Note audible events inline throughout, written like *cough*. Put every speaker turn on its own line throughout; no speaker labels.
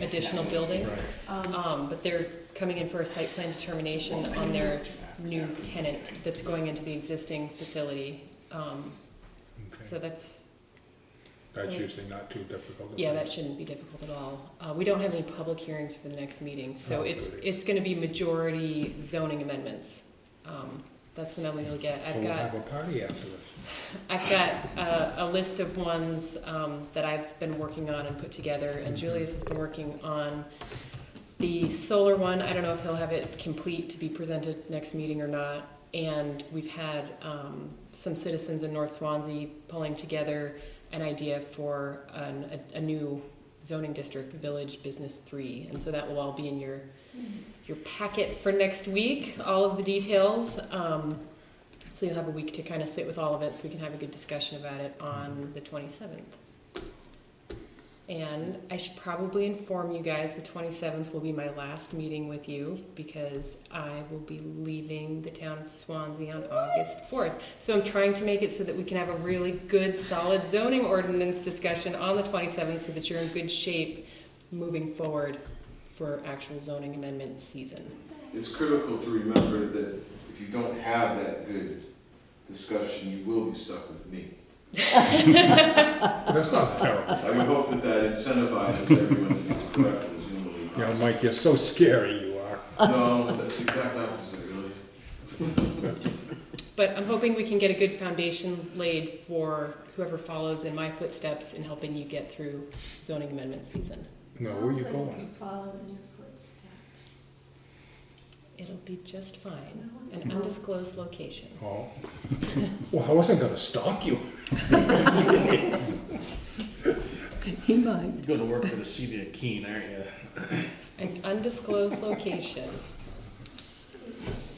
additional building.
Right.
Um,
Um, but they're coming in for a site plan determination on their new tenant that's going into the existing facility. Um,
Okay.
so that's,
That's usually not too difficult.
yeah, that shouldn't be difficult at all. Uh, we don't have any public hearings for the next meeting, so
Oh,
it's,
goody.
it's gonna be majority zoning amendments. Um, that's the memo you'll get.
Well,
I've
We'll
got
have a party after this.
I've got uh, a, a list of ones um, that I've been working on and put together, and Julius has been working on the solar one. I don't know if he'll have it complete to be presented next meeting or not. And we've had um, some citizens in North Swansea pulling together an idea for an, a, a new zoning district, Village Business Three, and so that will all be in your your packet for next week, all of the details. Um, so you'll have a week to kind of sit with all of it so we can have a good discussion about it on the 27th. And I should probably inform you guys the 27th will be my last meeting with you because I will be leaving the town of Swansea on August 4th. So I'm trying to make it so that we can have a really good, solid zoning ordinance discussion on the 27th so that you're in good shape moving forward for actual zoning amendment season.
It's critical to remember that if you don't have that good discussion, you will be stuck with me.
That's not terrible.
I would hope that that incentivizes everyone to be as productive as humanly
You know,
possible.
Mike, you're so scary you are.
No, that's the exact opposite, really.
But I'm hoping we can get a good foundation laid for whoever follows in my footsteps in helping you get through zoning amendment season.
No, where you
hopefully we
going?
can Follow in your footsteps.
It'll be just fine.
No,
Mm-hmm.
An undisclosed location.
Oh, *laughs* well, I wasn't gonna stalk you.
He might.
You're going to work for the city of Keene, aren't you?
An undisclosed location.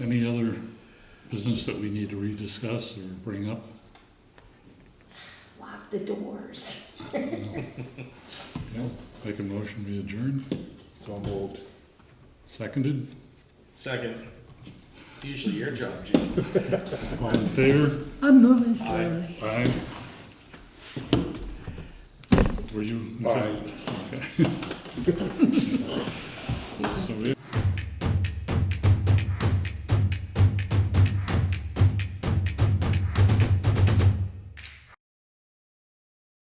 Any other business that we need to rediscuss or bring up?
Lock the doors.
No. Make a motion, we adjourn.
So moved.
Seconded,
Second. It's usually your job, Jim.
all in favor?
I'm moving
Aye.
slowly.
Aye. Were you? in
Bye.
favor? Okay. So we-